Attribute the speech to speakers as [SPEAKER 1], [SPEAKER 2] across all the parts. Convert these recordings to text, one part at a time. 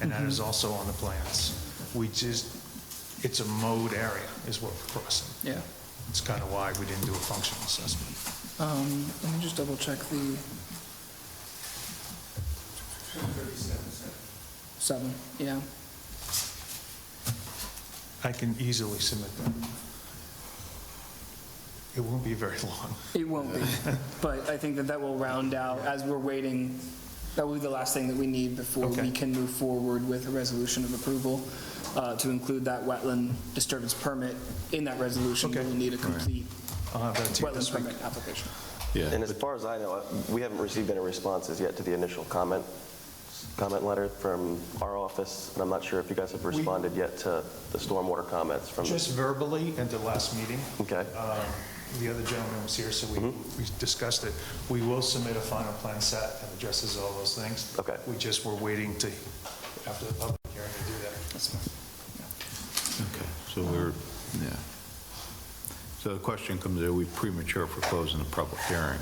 [SPEAKER 1] and that
[SPEAKER 2] Mm-hmm.
[SPEAKER 1] is also on the plans. We just, it's a mode area is what we're crossing.
[SPEAKER 2] Yeah.
[SPEAKER 1] It's kind of why we didn't do a functional assessment.
[SPEAKER 2] Um, let me just double check the. Seven, yeah.
[SPEAKER 1] I can easily submit that. It won't be very long.
[SPEAKER 2] It won't be, but I think that that will round out, as we're waiting, that will be the last thing that we need before we
[SPEAKER 1] Okay.
[SPEAKER 2] can move forward with a resolution of approval, uh, to include that wetland disturbance permit in that resolution.
[SPEAKER 1] Okay.
[SPEAKER 2] We'll need a complete
[SPEAKER 1] I'll have that to you
[SPEAKER 2] wetland
[SPEAKER 1] this week.
[SPEAKER 2] permit application.
[SPEAKER 3] And as far as I know, we haven't received any responses yet to the initial comment, comment letter from our office, and I'm not sure if you guys have responded yet to the stormwater comments from,
[SPEAKER 1] Just verbally at the last meeting,
[SPEAKER 3] okay?
[SPEAKER 1] um, the other gentleman was here, so we, we discussed it. We will submit a final plan set that addresses all those things.
[SPEAKER 3] Okay.
[SPEAKER 1] We just were waiting to, after the public hearing, to do that.
[SPEAKER 2] That's fine.
[SPEAKER 4] Okay, so we're, yeah. So the question comes, are we premature for closing the public hearing?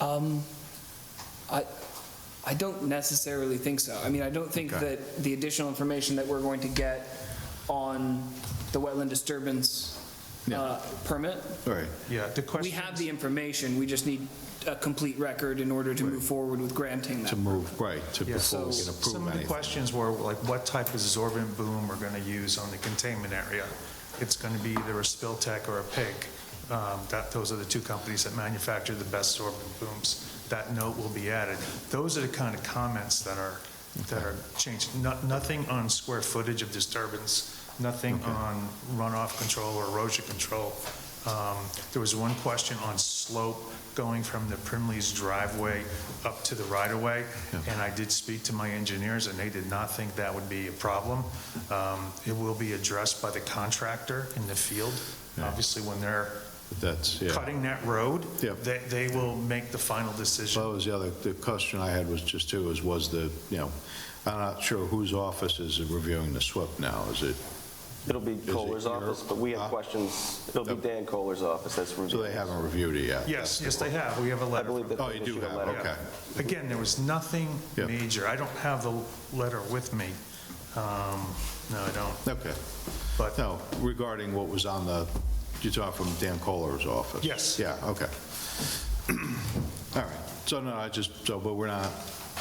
[SPEAKER 2] Um, I, I don't necessarily think so. I mean, I don't think
[SPEAKER 4] Okay.
[SPEAKER 2] that the additional information that we're going to get on the wetland disturbance
[SPEAKER 4] Yeah.
[SPEAKER 2] uh, permit,
[SPEAKER 4] All right,
[SPEAKER 1] Yeah, the
[SPEAKER 2] we
[SPEAKER 1] question.
[SPEAKER 2] have the information, we just need a complete record in order to move forward with granting that.
[SPEAKER 4] to move, right, to
[SPEAKER 1] Yeah,
[SPEAKER 4] before
[SPEAKER 1] so
[SPEAKER 4] we can
[SPEAKER 1] some
[SPEAKER 4] approve
[SPEAKER 1] of the
[SPEAKER 4] anything.
[SPEAKER 1] questions were like, what type of sorbent boom we're gonna use on the containment area? It's gonna be either a Spiltech or a PIG. Um, That, those are the two companies that manufacture the best sorbent booms. That note will be added. Those are the kind of comments that are, that are changed. No- Nothing on square footage of disturbance, nothing on runoff control or erosion control. Um, There was one question on slope going from the Primley's driveway up to the right-of-way, and I did speak to my engineers, and they did not think that would be a problem. Um, It will be addressed by the contractor in the field.
[SPEAKER 4] Yeah.
[SPEAKER 1] Obviously, when they're
[SPEAKER 4] But That's, yeah.
[SPEAKER 1] cutting that road,
[SPEAKER 4] Yeah.
[SPEAKER 1] they, they will make the final
[SPEAKER 4] That
[SPEAKER 1] decision.
[SPEAKER 4] was the other, the question I had was just too, is was the, you know, I'm not sure whose office is reviewing the SWIP now, is it,
[SPEAKER 3] It'll be
[SPEAKER 4] it
[SPEAKER 3] Kohler's
[SPEAKER 4] your-
[SPEAKER 3] office, but we
[SPEAKER 4] Huh?
[SPEAKER 3] have questions, it'll be
[SPEAKER 4] Nope.
[SPEAKER 3] Dan Kohler's office that's
[SPEAKER 4] so
[SPEAKER 3] reviewing.
[SPEAKER 4] they haven't reviewed it yet?
[SPEAKER 1] Yes, yes, they have. We have a
[SPEAKER 3] I
[SPEAKER 1] letter.
[SPEAKER 3] believe
[SPEAKER 1] from-
[SPEAKER 3] that
[SPEAKER 4] Oh,
[SPEAKER 3] they
[SPEAKER 4] you do
[SPEAKER 3] issued a
[SPEAKER 4] have,
[SPEAKER 3] letter.
[SPEAKER 4] okay.
[SPEAKER 1] Again, there was nothing
[SPEAKER 4] Yeah.
[SPEAKER 1] major. I don't have the letter with me. Um, No, I don't,
[SPEAKER 4] Okay.
[SPEAKER 1] but.
[SPEAKER 4] No, regarding what was on the, you talked from Dan Kohler's office?
[SPEAKER 1] Yes.
[SPEAKER 4] Yeah, okay. All right, so no, I just, so, but we're not,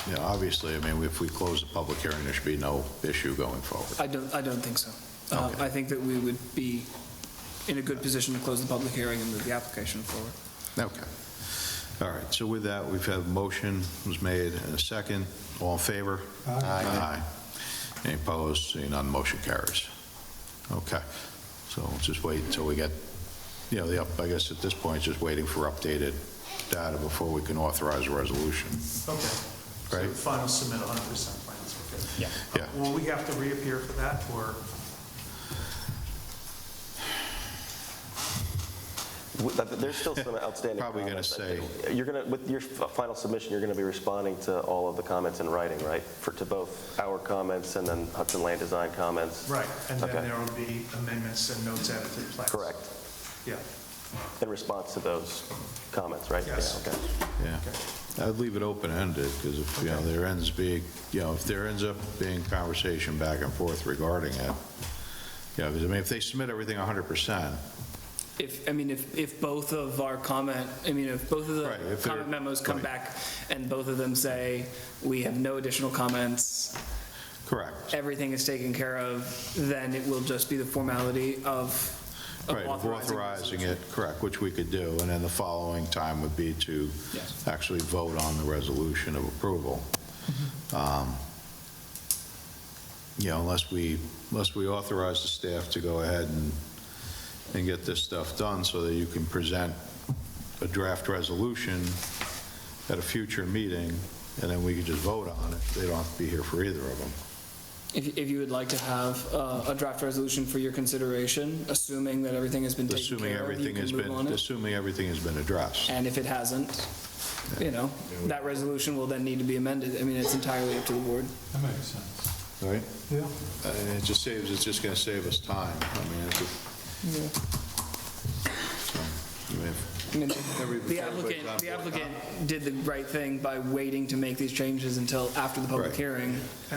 [SPEAKER 4] you know, obviously, I mean, if we close the public hearing, there should be no issue going forward.
[SPEAKER 2] I don't, I don't think so. Uh,
[SPEAKER 4] Okay.
[SPEAKER 2] I think that we would be in a good position to close the public hearing and move the application forward.
[SPEAKER 4] Okay. All right, so with that, we've had a motion was made and a second. All in favor? Aye. Any opposed? Seeing none, motion carries. Okay, so we'll just wait until we get, you know, the, up. I guess at this point, just waiting for updated data before we can authorize a resolution.
[SPEAKER 1] Okay. So
[SPEAKER 4] Right.
[SPEAKER 1] Final submit 100% plans, okay.
[SPEAKER 4] Yeah.
[SPEAKER 1] Uh, Will we have to reappear for that, or?
[SPEAKER 3] W- that- There's still some outstanding
[SPEAKER 4] Probably gonna
[SPEAKER 3] comments, I
[SPEAKER 4] say-
[SPEAKER 3] think. You're going to, with your f- final submission, you're going to be responding to all of the comments in writing, right? For, to both our comments and then Hudson Land Design comments?
[SPEAKER 1] Right, and
[SPEAKER 3] Okay.
[SPEAKER 1] then there will be amendments and notes added to the plans.
[SPEAKER 3] Correct.
[SPEAKER 1] Yeah,
[SPEAKER 3] In response to those comments, right?
[SPEAKER 1] Yes.
[SPEAKER 3] Yeah, okay.
[SPEAKER 4] Yeah. I'd leave it open-ended, because if, you know, there ends being, you know, if there ends up being conversation back and forth regarding it, you know, 'cause I mean, if they submit everything 100%,
[SPEAKER 2] If, I mean, if, if both of our comment, I mean, if both of
[SPEAKER 4] Right,
[SPEAKER 2] the
[SPEAKER 4] if they're-
[SPEAKER 2] comment memos come
[SPEAKER 4] right.
[SPEAKER 2] back and both of them say, we have no additional comments,
[SPEAKER 4] correct.
[SPEAKER 2] everything is taken care of, then it will just be the formality of of
[SPEAKER 4] Right, of
[SPEAKER 2] authorizing.
[SPEAKER 4] authorizing it, correct, which we could do, and then the following time would be to
[SPEAKER 2] Yes.
[SPEAKER 4] actually vote on the resolution of approval.
[SPEAKER 2] Mm-hmm.
[SPEAKER 4] Um, You know, unless we, unless we authorize the staff to go ahead and, and get this stuff done so that you can present a draft resolution at a future meeting, and then we can just vote on it. They don't have to be here for either of them.
[SPEAKER 2] If, if you would like to have uh, a draft resolution for your consideration, assuming that everything has been taken
[SPEAKER 4] Assuming
[SPEAKER 2] care of, you
[SPEAKER 4] everything
[SPEAKER 2] can
[SPEAKER 4] has
[SPEAKER 2] move on
[SPEAKER 4] been,
[SPEAKER 2] it.
[SPEAKER 4] assuming everything has been addressed.
[SPEAKER 2] And if it hasn't, you know, that resolution will then need to be amended. I mean, it's entirely up to the board.
[SPEAKER 5] That makes sense.
[SPEAKER 4] Right?
[SPEAKER 5] Yeah.
[SPEAKER 4] And it just saves, it's just going to save us time. I mean, it's, so, I mean, if-
[SPEAKER 2] I mean,
[SPEAKER 4] Every-
[SPEAKER 2] The applicant,
[SPEAKER 4] everybody's
[SPEAKER 2] the
[SPEAKER 4] on board.
[SPEAKER 2] applicant did the right thing by waiting to make these changes until after the public
[SPEAKER 4] Right.
[SPEAKER 2] hearing.